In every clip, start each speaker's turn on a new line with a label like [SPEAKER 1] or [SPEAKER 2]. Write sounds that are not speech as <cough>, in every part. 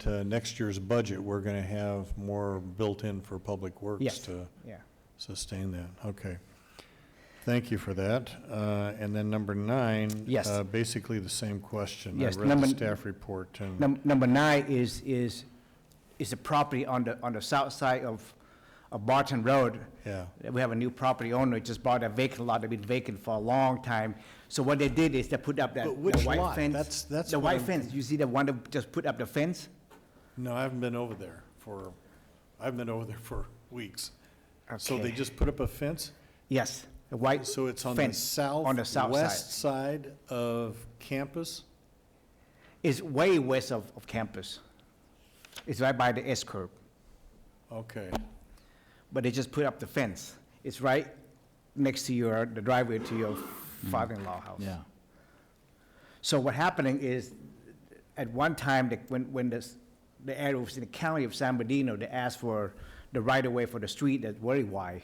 [SPEAKER 1] to next year's budget, we're gonna have more built in for Public Works
[SPEAKER 2] Yes.
[SPEAKER 1] to
[SPEAKER 2] Yeah.
[SPEAKER 1] sustain that, okay. Thank you for that. Uh, and then number nine.
[SPEAKER 2] Yes.
[SPEAKER 1] uh, Basically the same question.
[SPEAKER 2] Yes,
[SPEAKER 1] I read
[SPEAKER 2] number-
[SPEAKER 1] the staff report and,
[SPEAKER 2] Num- Number nine is, is, is a property on the, on the south side of, of Barton Road.
[SPEAKER 1] yeah,
[SPEAKER 2] We have a new property owner, just bought a vacant lot, that been vacant for a long time. So what they did is they put up that
[SPEAKER 1] But
[SPEAKER 2] the
[SPEAKER 1] which
[SPEAKER 2] white
[SPEAKER 1] lot?
[SPEAKER 2] fence.
[SPEAKER 1] That's- that's
[SPEAKER 2] The
[SPEAKER 1] what
[SPEAKER 2] white
[SPEAKER 1] I'm-
[SPEAKER 2] fence, you see the one that just put up the fence?
[SPEAKER 1] no, I haven't been over there for, I've been over there for weeks. So they
[SPEAKER 2] Okay.
[SPEAKER 1] just put up a fence?
[SPEAKER 2] Yes, the white.
[SPEAKER 1] So it's on the
[SPEAKER 2] fence
[SPEAKER 1] south?
[SPEAKER 2] On the south side.
[SPEAKER 1] West side of campus?
[SPEAKER 2] It's way west of, of campus. It's right by the S curve.
[SPEAKER 1] Okay,
[SPEAKER 2] but they just put up the fence. It's right next to your, the driveway to your father-in-law house.
[SPEAKER 3] Yeah,
[SPEAKER 2] So what happening is, at one time, the- when, when this, the area was in the county of San Bernardino, they asked for the right-of-way for the street that's very wide.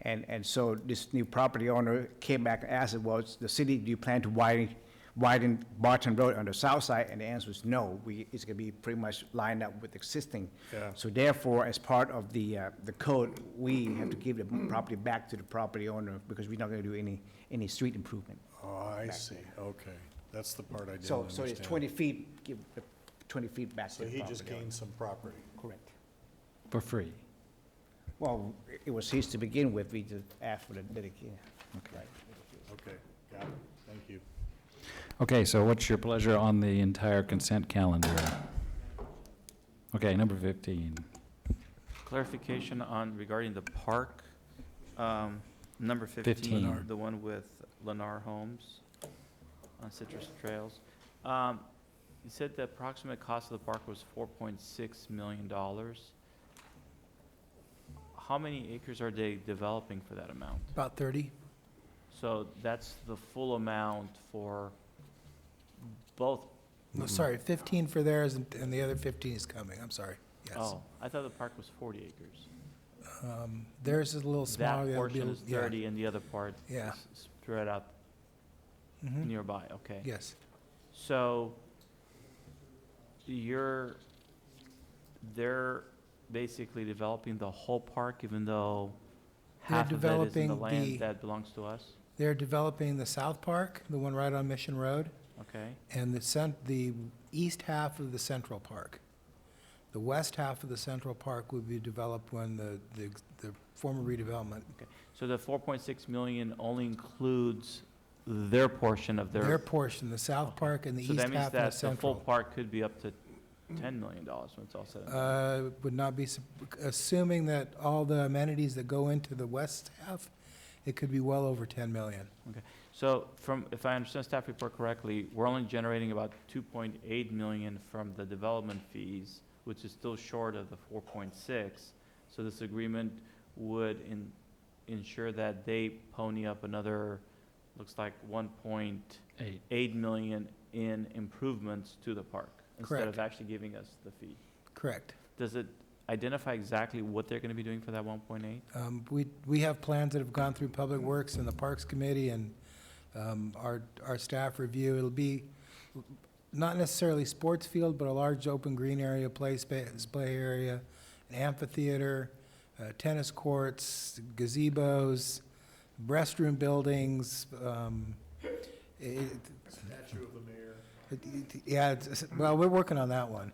[SPEAKER 2] And, and so this new property owner came back and asked, well, it's the city, do you plan to widen, widen Barton Road on the south side? And the answer is no, we, it's gonna be pretty much lined up with existing.
[SPEAKER 1] Yeah.
[SPEAKER 2] So therefore, as part of the, uh, the code, we have to give the property back to the property owner because we're not gonna do any, any street improvement.
[SPEAKER 1] oh, I see, okay. That's the part I didn't
[SPEAKER 2] So,
[SPEAKER 1] understand.
[SPEAKER 2] so it's 20 feet, give, the 20 feet back to
[SPEAKER 1] So
[SPEAKER 2] the
[SPEAKER 1] he just
[SPEAKER 2] property owner.
[SPEAKER 1] gained some property.
[SPEAKER 2] Correct.
[SPEAKER 3] for free.
[SPEAKER 2] Well, it was his to begin with, we just asked for the dedication. Okay.
[SPEAKER 1] Okay, got it, thank you.
[SPEAKER 3] Okay, so what's your pleasure on the entire consent calendar? Okay, number 15.
[SPEAKER 4] Clarification on regarding the park, um, number 15,
[SPEAKER 3] Fifteen.
[SPEAKER 4] the one with Lennar Homes on Citrus Trails. Um, You said the approximate cost of the park was $4.6 million. How many acres are they developing for that amount?
[SPEAKER 5] About 30?
[SPEAKER 4] So that's the full amount for both,
[SPEAKER 5] No, sorry, 15 for theirs and and the other 15 is coming, I'm sorry. Yes.
[SPEAKER 4] oh, I thought the park was 40 acres.
[SPEAKER 5] Um, Theirs is a little smaller.
[SPEAKER 4] That
[SPEAKER 5] the other
[SPEAKER 4] portion
[SPEAKER 5] bill-
[SPEAKER 4] is
[SPEAKER 5] yeah.
[SPEAKER 4] 30 and the other part
[SPEAKER 5] Yeah.
[SPEAKER 4] is spread out
[SPEAKER 5] Mhm.
[SPEAKER 4] nearby, okay.
[SPEAKER 5] Yes,
[SPEAKER 4] So you're, they're basically developing the whole park even though
[SPEAKER 5] They're
[SPEAKER 4] half of it is in the
[SPEAKER 5] developing the-
[SPEAKER 4] land that belongs to us?
[SPEAKER 5] they're developing the South Park, the one right on Mission Road,
[SPEAKER 4] Okay,
[SPEAKER 5] and the cent, the east half of the Central Park. The west half of the Central Park would be developed when the, the the former redevelopment,
[SPEAKER 4] so the four point six million only includes their portion of
[SPEAKER 5] their
[SPEAKER 4] their.
[SPEAKER 5] portion, the South
[SPEAKER 4] Okay.
[SPEAKER 5] Park and the
[SPEAKER 4] So
[SPEAKER 5] east
[SPEAKER 4] that means
[SPEAKER 5] half of the
[SPEAKER 4] that the full
[SPEAKER 5] Central.
[SPEAKER 4] park could be up to ten million dollars when it's all said and done.
[SPEAKER 5] Uh, Would not be, sup- assuming that all the amenities that go into the west half, it could be well over 10 million.
[SPEAKER 4] So from, if I understand staff report correctly, we're only generating about two point eight million from the development fees, which is still short of the four point six. So this agreement would in, ensure that they pony up another, looks like one point
[SPEAKER 3] Eight.
[SPEAKER 4] eight million in improvements to the park. Instead
[SPEAKER 5] Correct.
[SPEAKER 4] of actually giving us the fee.
[SPEAKER 5] Correct.
[SPEAKER 4] Does it identify exactly what they're gonna be doing for that one point eight?
[SPEAKER 5] Um, We, we have plans that have gone through Public Works and the Parks Committee and um, our, our staff review. It'll be not necessarily sports field, but a large open green area, play space, play area, an amphitheater, uh, tennis courts, gazebos, restroom buildings. um, it-
[SPEAKER 1] Statue of the mayor.
[SPEAKER 5] it- it- Yeah, it's- well, we're working on that one.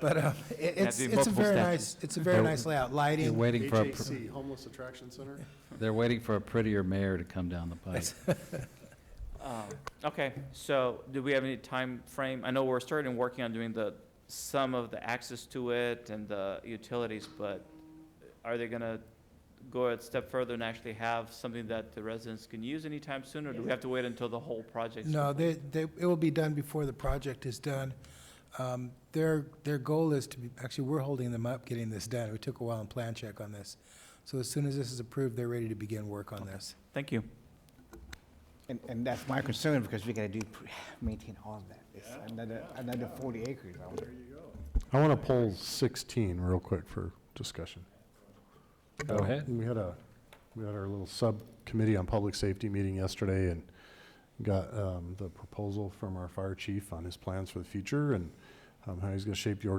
[SPEAKER 5] But um, it- it's,
[SPEAKER 4] be
[SPEAKER 5] it's a
[SPEAKER 4] multiple
[SPEAKER 5] very
[SPEAKER 4] statues.
[SPEAKER 5] nice, it's a very
[SPEAKER 3] They're-
[SPEAKER 5] nice layout,
[SPEAKER 3] They're
[SPEAKER 5] lighting.
[SPEAKER 3] waiting for, a pr-
[SPEAKER 6] HAC, Homeless Attraction Center?
[SPEAKER 3] they're waiting for a prettier mayor to come down the pipe.
[SPEAKER 4] Um, Okay, so do we have any time frame? I know we're starting working on doing the, some of the access to it and the utilities, but are they gonna go a step further and actually have something that the residents can use anytime soon, or do we have to wait until the whole project's?
[SPEAKER 5] No,
[SPEAKER 4] complete?
[SPEAKER 5] they, they, it will be done before the project is done. Um, Their, their goal is to be, actually, we're holding them up getting this done. We took a while in plan check on this. So as soon as this is approved, they're ready to begin work on this.
[SPEAKER 4] Thank you.
[SPEAKER 2] And, and that's my concern, because we gotta do, pre- <sighs> maintain all of that. It's another, another 40 acres. I wonder.
[SPEAKER 6] I want to poll 16 real quick for discussion. Uh,
[SPEAKER 3] Go ahead.
[SPEAKER 6] We had a, we had our little subcommittee on public safety meeting yesterday and got um, the proposal from our fire chief on his plans for the future and um, how he's going to shape the